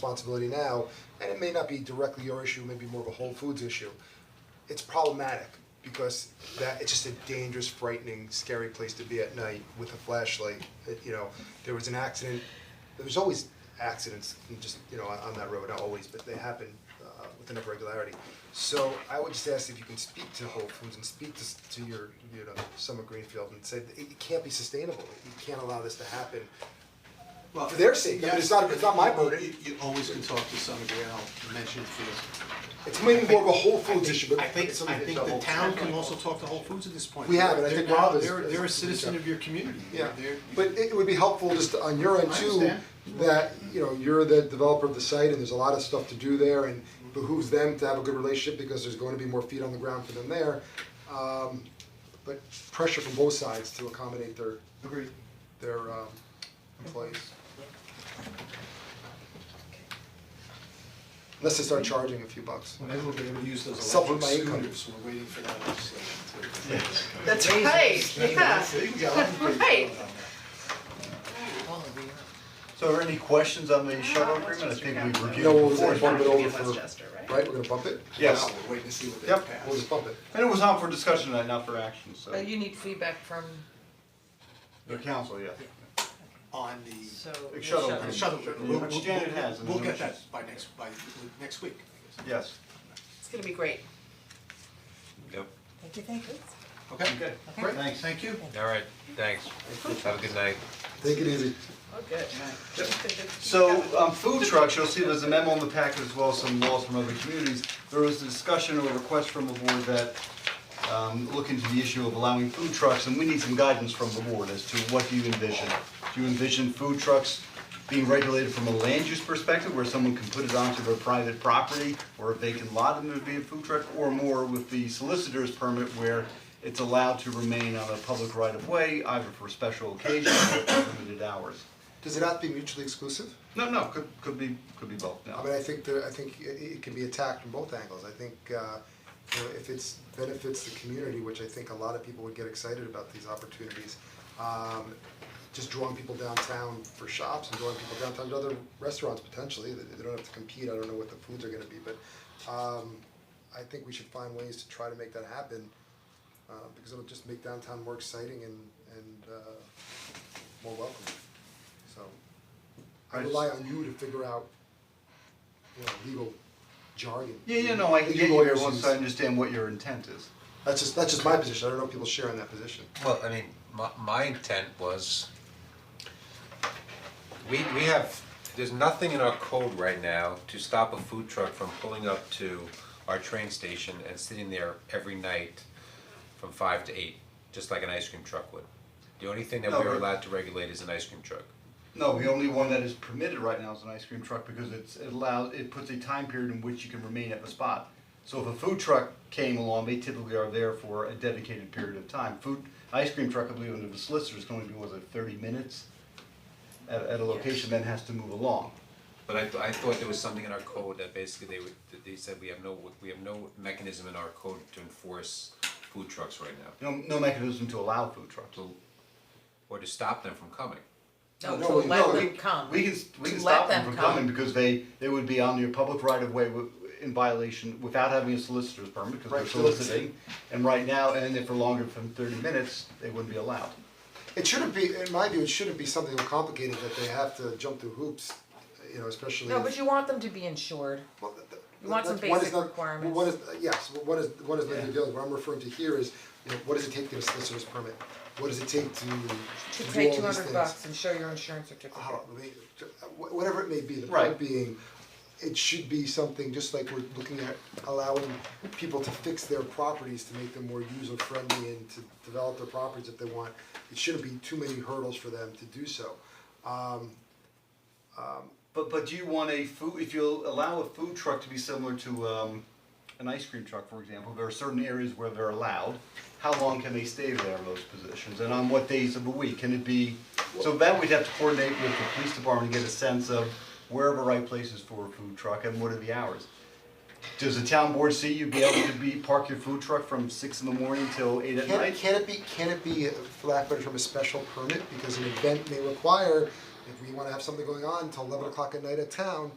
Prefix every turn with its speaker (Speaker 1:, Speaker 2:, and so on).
Speaker 1: responsibility now, and it may not be directly your issue, maybe more of a Whole Foods issue. It's problematic because that, it's just a dangerous, frightening, scary place to be at night with a flashlight. It- you know, there was an accident, there's always accidents, in just, you know, on, on that road, not always, but they happen uh, with enough regularity. So I would just ask if you can speak to Whole Foods and speak to, s- to your, you know, Summer Greenfield and say, that it it can't be sustainable, you can't allow this to happen.
Speaker 2: Well,
Speaker 1: For their sake, I mean, it's not- it's not my
Speaker 2: yes,
Speaker 1: burden.
Speaker 2: You, you always can talk to somebody, and I'll mention it to you.
Speaker 1: It's maybe more of a Whole Foods
Speaker 2: I
Speaker 1: issue,
Speaker 2: think-
Speaker 1: but
Speaker 2: I think,
Speaker 1: it's something
Speaker 2: I
Speaker 1: that's
Speaker 2: think
Speaker 1: a
Speaker 2: the
Speaker 1: Whole
Speaker 2: town can also talk to Whole Foods at this point.
Speaker 1: We have, and I
Speaker 2: They're
Speaker 1: think
Speaker 2: now-
Speaker 1: Rob is-
Speaker 2: They're,
Speaker 1: is-
Speaker 2: they're a
Speaker 1: is-
Speaker 2: citizen of your community,
Speaker 1: Yeah,
Speaker 2: they're, they're-
Speaker 1: but it would be helpful just on your end
Speaker 2: I
Speaker 1: too,
Speaker 2: understand.
Speaker 1: that, you know, you're the developer of the site and there's a lot of stuff to do there and behooves them to have a good relationship because there's going to be more feet on the ground for them there. Um, but pressure from both sides to accommodate their,
Speaker 2: Agreed.
Speaker 1: their um, employees. Unless they start charging a few bucks.
Speaker 2: Well, maybe we'll be able to use those
Speaker 1: Supplement
Speaker 2: electric
Speaker 1: my income.
Speaker 2: scooters, we're waiting for that legislation to.
Speaker 3: That's right, yeah.
Speaker 2: We got a lot of things
Speaker 3: Right.
Speaker 2: going on there.
Speaker 4: So are there any questions on the shuttle agreement? I think we've
Speaker 1: No,
Speaker 4: reviewed
Speaker 1: we'll
Speaker 4: it before.
Speaker 1: just bump it over for,
Speaker 3: Westchester, right?
Speaker 1: right, we're gonna bump it?
Speaker 4: Yes,
Speaker 2: Now, we're waiting to see what they
Speaker 4: Yep.
Speaker 2: pass.
Speaker 1: We'll just bump it.
Speaker 4: and it was on for discussion tonight, not for action, so.
Speaker 3: But you need feedback from,
Speaker 4: The council, yeah.
Speaker 2: On the.
Speaker 3: so.
Speaker 4: Like shuttle.
Speaker 2: On the shuttle,
Speaker 4: Yeah,
Speaker 2: we'll,
Speaker 4: which
Speaker 2: we'll-
Speaker 4: Janet has, and
Speaker 2: we'll
Speaker 4: then
Speaker 2: get
Speaker 4: she's-
Speaker 2: that by next, by next week, I guess.
Speaker 4: Yes.
Speaker 3: It's gonna be great.
Speaker 5: Yep,
Speaker 6: Thank you, thank you.
Speaker 4: Okay,
Speaker 2: Great,
Speaker 4: thanks.
Speaker 2: thank you.
Speaker 5: all right, thanks. Have a good night.
Speaker 1: Take it easy.
Speaker 3: Oh, good.
Speaker 4: So, um, food trucks, you'll see there's a memo in the packet as well as some laws from other communities. There was a discussion or a request from the board that, um, look into the issue of allowing food trucks, and we need some guidance from the board as to what do you envision? Do you envision food trucks being regulated from a land use perspective, where someone can put it onto their private property or a vacant lot and there'd be a food truck, or more with the solicitor's permit where it's allowed to remain on a public right of way, either for special occasions or for limited hours?
Speaker 1: Does it have to be mutually exclusive?
Speaker 4: No, no, could could be could be both,
Speaker 1: I mean, I think that, I think it it can be attacked from both angles, I think uh you know, if it's benefits the community, which I think a lot of people would get excited about these opportunities. Um just drawing people downtown for shops and drawing people downtown to other restaurants potentially, they they don't have to compete, I don't know what the foods are gonna be, but um I think we should find ways to try to make that happen. Uh because it'll just make downtown more exciting and and uh more welcoming, so. I
Speaker 4: I just-
Speaker 1: rely on you to figure out you know, legal jargon.
Speaker 4: Yeah, yeah, no, I can
Speaker 1: Legal
Speaker 4: get you here
Speaker 1: lawyers
Speaker 4: once
Speaker 1: use.
Speaker 4: I understand what your intent is.
Speaker 1: That's just, that's just my position, I don't know if people share in that position.
Speaker 5: Well, I mean, my my intent was we we have, there's nothing in our code right now to stop a food truck from pulling up to our train station and sitting there every night from five to eight, just like an ice cream truck would. The only thing that we
Speaker 4: No,
Speaker 5: are
Speaker 4: but-
Speaker 5: allowed to regulate is an ice cream truck.
Speaker 4: No, the only one that is permitted right now is an ice cream truck because it's it allows it puts a time period in which you can remain at the spot. So if a food truck came along, they typically are there for a dedicated period of time. Food ice cream truck, I believe under the solicitor is going to be was it thirty minutes at at a location, then has to move along.
Speaker 5: But I th- I thought there was something in our code that basically they would, that they said we have no, we have no mechanism in our code to enforce food trucks right now,
Speaker 4: No no mechanism to allow food trucks.
Speaker 5: to, or to stop them from coming.
Speaker 3: No,
Speaker 4: No,
Speaker 3: to
Speaker 4: we-
Speaker 3: let
Speaker 4: no,
Speaker 3: them
Speaker 4: we-
Speaker 3: come.
Speaker 4: We can, we
Speaker 3: To
Speaker 4: can
Speaker 3: let
Speaker 4: stop them
Speaker 3: them
Speaker 4: from
Speaker 3: come.
Speaker 4: coming because they, they would be on your public right of way wi- in violation without having a solicitor's permit because they're
Speaker 1: Right, soliciting.
Speaker 4: soliciting. And right now, and if for longer than thirty minutes, they wouldn't be allowed.
Speaker 1: It shouldn't be, in my view, it shouldn't be something complicated that they have to jump through hoops, you know, especially
Speaker 6: No,
Speaker 1: if-
Speaker 6: but you want them to be insured.
Speaker 1: Well, th- th-
Speaker 6: You want some
Speaker 1: that's- what is
Speaker 6: basic
Speaker 1: not-
Speaker 6: requirements.
Speaker 1: What is, uh, yes, what is, what is legally
Speaker 4: Yeah.
Speaker 1: available, what I'm referring to here is, you know, what does it take to get a solicitor's permit? What does it take to do all these
Speaker 6: To
Speaker 1: things?
Speaker 6: pay two hundred bucks and show your insurance certificate.
Speaker 1: I don't know, they- wh- whatever it may be, the
Speaker 4: Right.
Speaker 1: point being, it should be something, just like we're looking at allowing people to fix their properties to make them more user friendly and to develop their properties if they want. It shouldn't be too many hurdles for them to do so.
Speaker 4: But, but do you want a food, if you'll allow a food truck to be similar to, um, an ice cream truck, for example, there are certain areas where they're allowed. How long can they stay there in those positions and on what days of the week? Can it be, so that we'd have to coordinate with the police department and get a sense of where the right place is for a food truck and what are the hours? Does the town board see you be able to be, park your food truck from six in the morning till eight at
Speaker 1: Can,
Speaker 4: night?
Speaker 1: can it be, can it be, for lack of a better term, a special permit, because an event may require if we wanna have something going on till eleven o'clock at night at town,